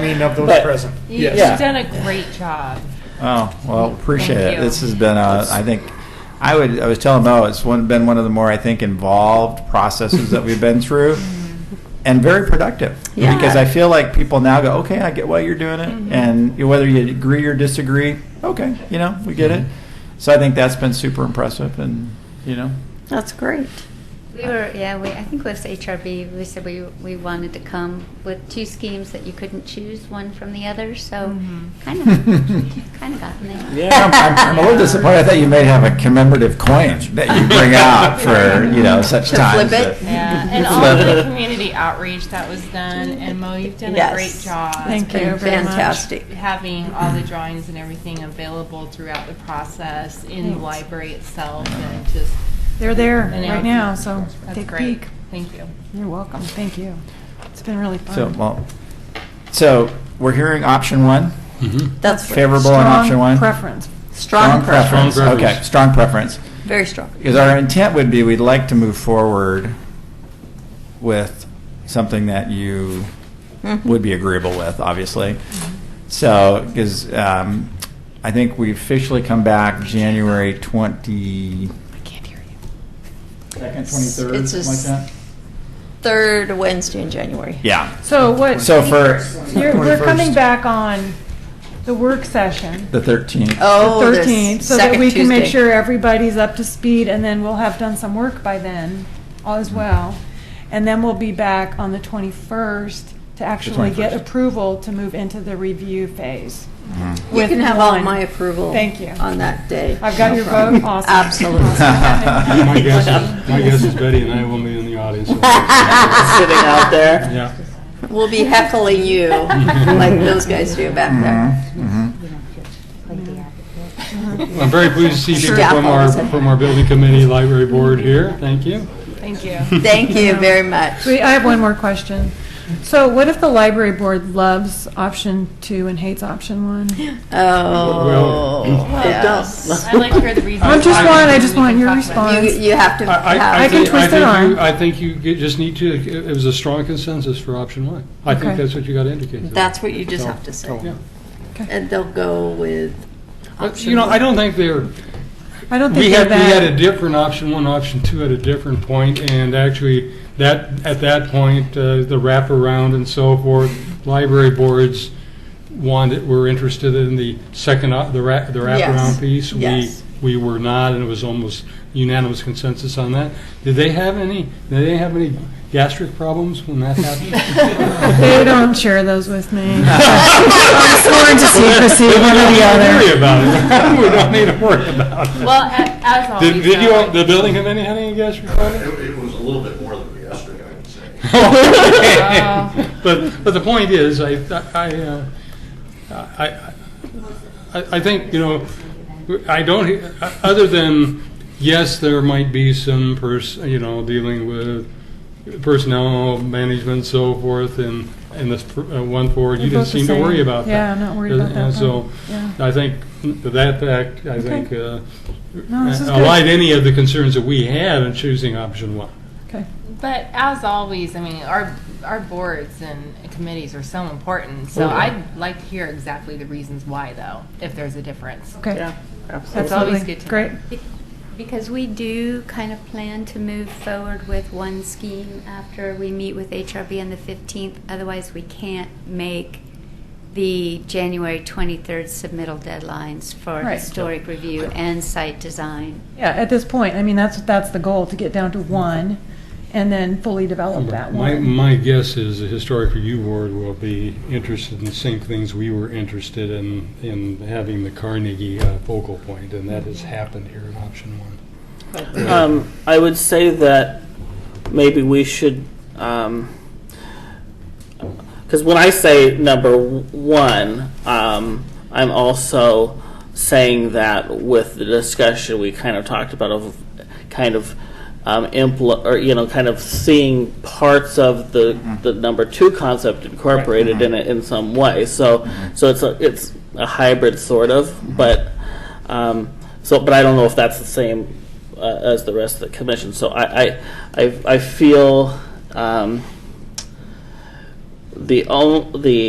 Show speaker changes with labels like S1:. S1: mean of those
S2: But-
S1: present.
S3: You-
S2: Yeah.
S3: You've done a great job.
S2: Oh, well, appreciate
S3: Thank
S2: it.
S3: you.
S2: This has been, uh, I think, I would, I was telling Mo, it's one, been one of the more, I think, involved processes that we've been through
S4: Mm-hmm.
S2: and very productive.
S5: Yeah.
S2: Because I feel like people now go, okay, I get why you're doing it.
S3: Mm-hmm.
S2: And you- whether you agree or disagree, okay, you know, we get it.
S3: Mm-hmm.
S2: So I think that's been super impressive and, you know,
S5: That's great.
S6: We were, yeah, we, I think with HRB, we said we, we wanted to come with two schemes that you couldn't choose one from the other, so
S3: Mhm.
S6: kind of, kind of gotten there.
S2: Yeah, I'm, I'm, I'm a little disappointed. I thought you may have a commemorative coin that you bring out for you know such
S5: To
S2: times.
S5: flip it?
S2: that-
S3: Yeah, and all of the community outreach that was done, and Mo, you've done a
S5: Yes.
S3: great job.
S5: Thank you very much. Fantastic.
S3: Having all the drawings and everything available throughout the process in the
S4: Thanks.
S3: library itself, and just.
S4: They're there
S3: And
S4: right now, so
S3: That's
S4: take a
S3: great.
S4: peek.
S3: Thank you.
S4: You're welcome. Thank you. It's been really
S2: So
S4: fun.
S2: well, so we're hearing option one,
S5: That's right.
S2: favorable on
S4: Strong
S2: option one.
S4: Preference.
S5: Strong
S2: preference.
S5: preference.
S7: Strong preference.
S2: Okay, strong preference.
S5: Very strong.
S2: Because our intent would be we'd like to move forward with something that you
S5: Mhm.
S2: would be agreeable with, obviously. So, because um, I think we officially come back January 20.
S4: I can't hear you.
S2: Second,
S5: It's a s- Third Wednesday in January.
S2: Yeah.
S4: So what?
S2: So for
S4: You're, we're
S2: 21st,
S4: coming back on the work session.
S2: the 13th.
S5: Oh,
S4: the
S5: the
S4: 13th, so that
S5: second
S4: we can make
S5: Tuesday.
S4: sure everybody's up to speed, and then we'll have done some work by then as well. And then we'll be back on the 21st to actually get
S2: 21st.
S4: approval to move into the review phase.
S2: Mhm.
S5: You
S4: with
S5: can have all
S4: one.
S5: my approval.
S4: Thank you.
S5: On that day.
S4: I've got
S5: No
S4: your
S5: problem.
S4: vote. Awesome.
S5: Absolutely.
S2: Awesome.
S7: My guess, is- my guess is Betty and I will be in the audience. Yeah.
S5: Sitting out there. We'll be heckling you like those guys do back there.
S2: Mhm.
S4: Mm-hmm.
S7: I'm very pleased to see people
S5: Staff
S7: from our,
S5: always had-
S7: from our building committee, library board here. Thank you.
S4: Thank you.
S5: Thank you very much.
S4: Wait, I have one more question. So what if the library board loves option two and hates option one?
S5: Oh, yes.
S3: I'd like to hear the reasons.
S4: I'm just
S3: why,
S4: want- I
S3: and then
S4: just
S3: we
S4: want
S3: can
S4: your
S3: talk about it.
S4: response.
S5: You, you have to.
S7: I-
S5: have-
S7: I, I
S4: I can
S7: think, I
S4: twist their
S7: think you,
S4: arm.
S7: I think you get- just need to, it was a strong consensus for option one. I think
S4: Okay.
S7: that's what you got to indicate. to
S5: That's
S7: them.
S5: what you just have to say.
S7: Yeah.
S5: And they'll go with
S7: But, You know, I don't think they're,
S4: I don't
S7: We had,
S4: think they're
S7: we had a
S4: that.
S7: different option one, option two at a different point, and actually, that, at that point, uh, the wraparound and so forth, library boards wanted, were interested in the second, op- the wrap, the
S5: Yes,
S7: wraparound piece. We-
S5: yes.
S7: We were not, and it was almost unanimous consensus on that. Did they have any, did they have any gastric problems when that happened?
S4: They don't share those with me. I'm sworn to secrecy, one or the
S7: Don't worry
S4: other.
S7: about it. We don't need to worry about it.
S3: Well, a- as always. uh,
S7: Did, did
S3: though,
S7: you, the building committee have any gastric problems?
S8: It it was a little bit more than yesterday, I would say.
S3: Wow.
S7: But, but the point is, I, I, uh, I, I I think, you know, I don't, he- other than, yes, there might be some pers, you know, dealing with personnel management, so forth, and, and this pr- uh, one forward, you didn't
S4: They're both the
S7: seem to worry
S4: same.
S7: about that.
S4: Yeah, I'm not worried about
S7: And
S4: that
S7: so,
S4: one.
S7: I think, to that fact, I think, uh,
S4: No, this is good.
S7: allied any of the concerns that we had in choosing option one.
S4: Okay.
S3: But as always, I mean, our, our boards and committees are so important, so
S7: Oh, yeah.
S3: I'd like to hear exactly the reasons why, though, if there's a difference.
S4: Okay.
S5: Yeah,
S3: That's
S5: absolutely.
S3: always
S4: Absolutely.
S3: good to know.
S4: Great.
S6: Because we do kind of plan to move forward with one scheme after we meet with HRB on the 15th. Otherwise, we can't make the January 23rd submittal deadlines for
S4: Right.
S6: historic review and site design.
S4: Yeah, at this point, I mean, that's, that's the goal, to get down to one and then fully develop that
S7: My,
S4: one.
S7: my guess is the Historic Review Board will be interested in the same things we were interested in, in having the Carnegie uh, focal point, and that has happened here in option one.
S9: Um, I would say that maybe we should, um, because when I say number w- one, um, I'm also saying that with the discussion we kind of talked about of kind of um, impl- or you know kind of seeing parts of the, the number two concept incorporated in it in some way. So so it's a it's a hybrid sort of, but um, so but I don't know if that's the same uh, as the rest of the commission. So I I I, I feel. Um, the only the